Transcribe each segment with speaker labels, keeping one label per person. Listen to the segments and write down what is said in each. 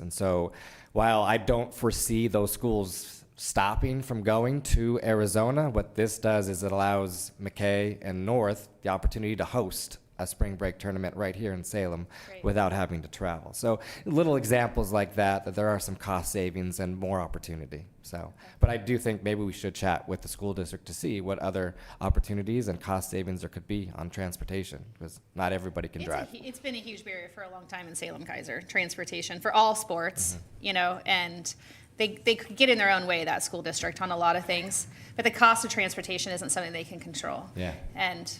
Speaker 1: And so while I don't foresee those schools stopping from going to Arizona, what this does is it allows McKay and North the opportunity to host a spring break tournament right here in Salem
Speaker 2: Great.
Speaker 1: without having to travel. So little examples like that, that there are some cost savings and more opportunity. So, but I do think maybe we should chat with the school district to see what other opportunities and cost savings there could be on transportation, because not everybody can
Speaker 2: It's a
Speaker 1: drive.
Speaker 2: hu- It's been a huge barrier for a long time in Salem Kaiser, transportation for all sports,
Speaker 1: Mm-hmm.
Speaker 2: you know, and they, they could get in their own way, that school district, on a lot of things. But the cost of transportation isn't something they can control.
Speaker 1: Yeah.
Speaker 2: And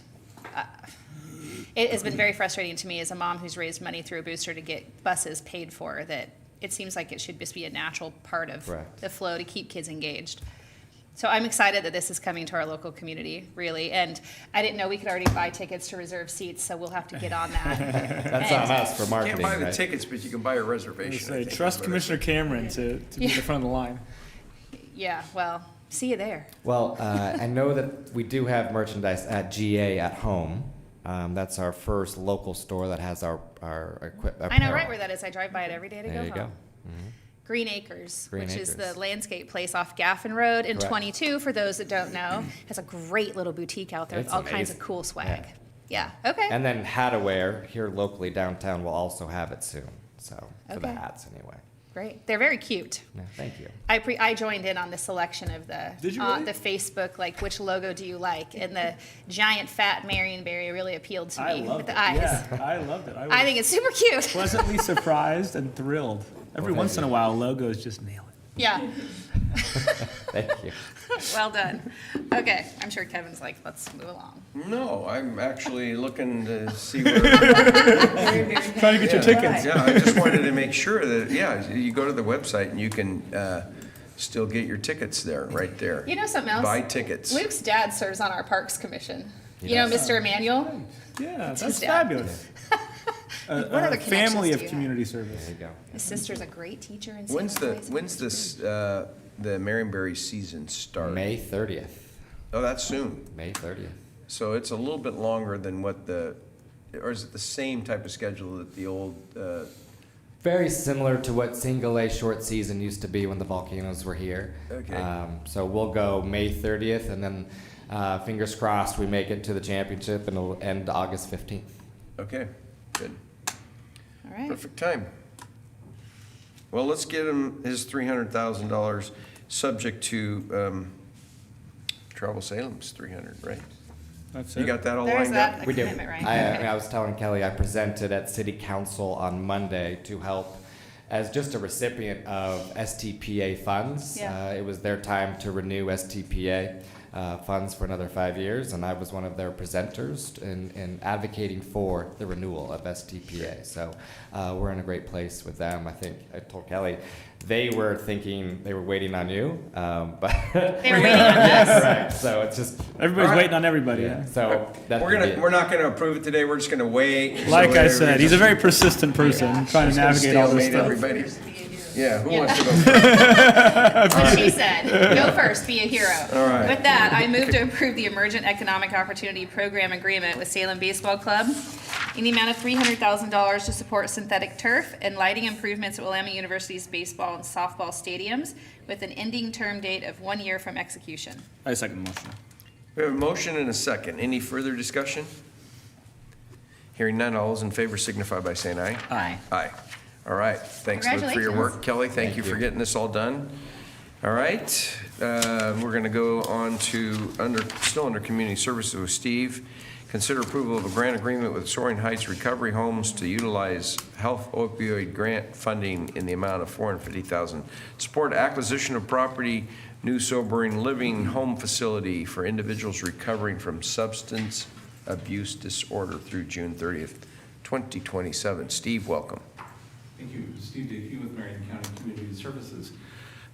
Speaker 2: uh, it has been very frustrating to me as a mom who's raised money through a booster to get buses paid for that it seems like it should just be a natural part of
Speaker 1: Correct.
Speaker 2: the flow to keep kids engaged. So I'm excited that this is coming to our local community, really. And I didn't know we could already buy tickets to reserve seats, so we'll have to get on that.
Speaker 1: That's on us for
Speaker 3: You can't
Speaker 1: marketing,
Speaker 3: buy the
Speaker 1: right?
Speaker 3: tickets, but you can buy a reservation. I
Speaker 4: Say,
Speaker 3: think, is
Speaker 4: trust
Speaker 3: what it-
Speaker 4: Commissioner Cameron to, to be in the front of the line.
Speaker 2: Yeah, well, see you there.
Speaker 1: Well, uh, I know that we do have merchandise at GA at home. Um, that's our first local store that has our, our equipment.
Speaker 2: I know right where that is. I drive by it every day to
Speaker 1: There
Speaker 2: go
Speaker 1: you
Speaker 2: home.
Speaker 1: go.
Speaker 2: Green Acres,
Speaker 1: Green
Speaker 2: which is the
Speaker 1: Acres.
Speaker 2: landscape place off Gaffin Road in
Speaker 1: Correct.
Speaker 2: 22, for those that don't know, has a great little boutique out there with
Speaker 1: It's
Speaker 2: all kinds of
Speaker 1: amazing.
Speaker 2: cool swag. Yeah, okay.
Speaker 1: And then Hadaware here locally downtown will also have it soon. So for the
Speaker 2: Okay.
Speaker 1: hats anyway.
Speaker 2: Great. They're very cute.
Speaker 1: Yeah, thank you.
Speaker 2: I pre I joined in on the selection of the
Speaker 4: Did you
Speaker 2: uh,
Speaker 4: really?
Speaker 2: the Facebook like which logo do you like and the giant fat Marionberry really appealed to
Speaker 4: I
Speaker 2: me
Speaker 4: love
Speaker 2: with
Speaker 4: it.
Speaker 2: the eyes.
Speaker 4: Yeah, I loved it.
Speaker 2: I
Speaker 4: I was
Speaker 2: think it's super cute.
Speaker 4: pleasantly surprised and thrilled. Every
Speaker 1: Well,
Speaker 4: once
Speaker 1: thank
Speaker 4: in a
Speaker 1: you.
Speaker 4: while, logos just nail it.
Speaker 2: Yeah,
Speaker 1: Thank you.
Speaker 2: well done. Okay, I'm sure Kevin's like, let's move along.
Speaker 3: No, I'm actually looking to see where.
Speaker 4: Trying to get your tickets.
Speaker 3: Yeah, I just wanted to make sure that, yeah, you go to the website and you can uh, still get your tickets there, right there.
Speaker 2: You know something else?
Speaker 3: Buy tickets.
Speaker 2: Luke's dad serves on our Parks Commission. You know, Mr. Emanuel.
Speaker 4: Yeah, that's
Speaker 2: Tuesday.
Speaker 4: fabulous. A-
Speaker 2: What other
Speaker 4: a Family
Speaker 2: connections
Speaker 4: of
Speaker 2: do you
Speaker 4: community service.
Speaker 1: There you go.
Speaker 2: His sister's a great teacher in.
Speaker 3: When's
Speaker 2: Salem
Speaker 3: the,
Speaker 2: Heights.
Speaker 3: when's this, uh, the Marionberry season start?
Speaker 1: May 30th.
Speaker 3: Oh, that's soon.
Speaker 1: May 30th.
Speaker 3: So it's a little bit longer than what the, or is it the same type of schedule that the old, uh,
Speaker 1: Very similar to what single A short season used to be when the volcanoes were here.
Speaker 3: Okay.
Speaker 1: Um, so we'll go May 30th, and then uh, fingers crossed we make it to the championship, and it'll end August 15th.
Speaker 3: okay, good.
Speaker 2: All right.
Speaker 3: Perfect time. Well, let's get him his three hundred thousand dollars, subject to, um, Travel Salem's three hundred, right?
Speaker 4: That's
Speaker 3: You
Speaker 4: it.
Speaker 3: got that all
Speaker 2: There's
Speaker 3: lined
Speaker 2: that.
Speaker 3: up?
Speaker 2: The
Speaker 1: We do.
Speaker 2: commitment, right?
Speaker 1: I, I
Speaker 2: Okay.
Speaker 1: mean, I was telling Kelly, I presented at city council on Monday to help as just a recipient of STPA funds.
Speaker 2: Yeah.
Speaker 1: Uh, it was their time to renew STPA uh, funds for another five years, and I was one of their presenters in, in advocating for the renewal of STPA. So uh, we're in a great place with them. I think I told Kelly they were thinking they were waiting on you, um, but
Speaker 2: They were waiting on us.
Speaker 1: right. So it's just
Speaker 4: Everybody's
Speaker 3: Alright.
Speaker 4: waiting on everybody.
Speaker 1: yeah. So that's
Speaker 3: We're
Speaker 1: gonna be
Speaker 3: gonna,
Speaker 1: it.
Speaker 3: we're not gonna approve it today, we're just gonna wait.
Speaker 4: Like
Speaker 3: So
Speaker 4: I said, he's a
Speaker 3: everybody's
Speaker 4: very persistent person, trying to
Speaker 3: gonna
Speaker 4: navigate all this
Speaker 3: stalemate
Speaker 4: stuff.
Speaker 3: everybody. Yeah, who
Speaker 2: Yeah.
Speaker 3: wants to go first?
Speaker 2: That's what she said. Go first, be a hero.
Speaker 3: All right.
Speaker 2: With that, I move to approve the Emergent Economic Opportunity Program Agreement with Salem Baseball Club in the amount of three hundred thousand dollars to support synthetic turf and lighting improvements at Willamette University's baseball and softball stadiums with an ending term date of one year from execution.
Speaker 4: I second the motion.
Speaker 3: We have a motion and a second, any further discussion? Hearing none, all those in favor signify by saying aye.
Speaker 2: Aye.
Speaker 3: Aye. All right. Thanks, Luke, for your work. Kelly, thank you for getting this all done. All right, uh, we're going to go on to, under, still under Community Services with Steve. Consider approval of a grant agreement with Soaring Heights Recovery Homes to utilize health opioid grant funding in the amount of $450,000. Support acquisition of property, new sobering living home facility for individuals recovering from substance abuse disorder through June 30th, 2027. Steve, welcome.
Speaker 5: Thank you. Steve Dickey with Marion County Community Services.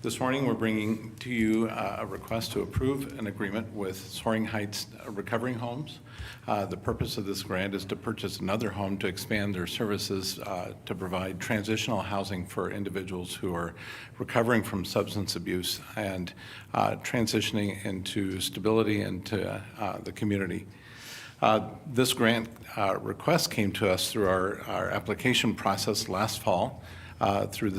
Speaker 5: This morning, we're bringing to you uh, a request to approve an agreement with Soaring Heights Recovering Homes. Uh, The purpose of this grant is to purchase another home to expand their services uh, to provide transitional housing for individuals who are recovering from substance abuse and uh, transitioning into stability into uh, the community. Uh, This grant uh, request came to us through our, our application process last fall uh, through the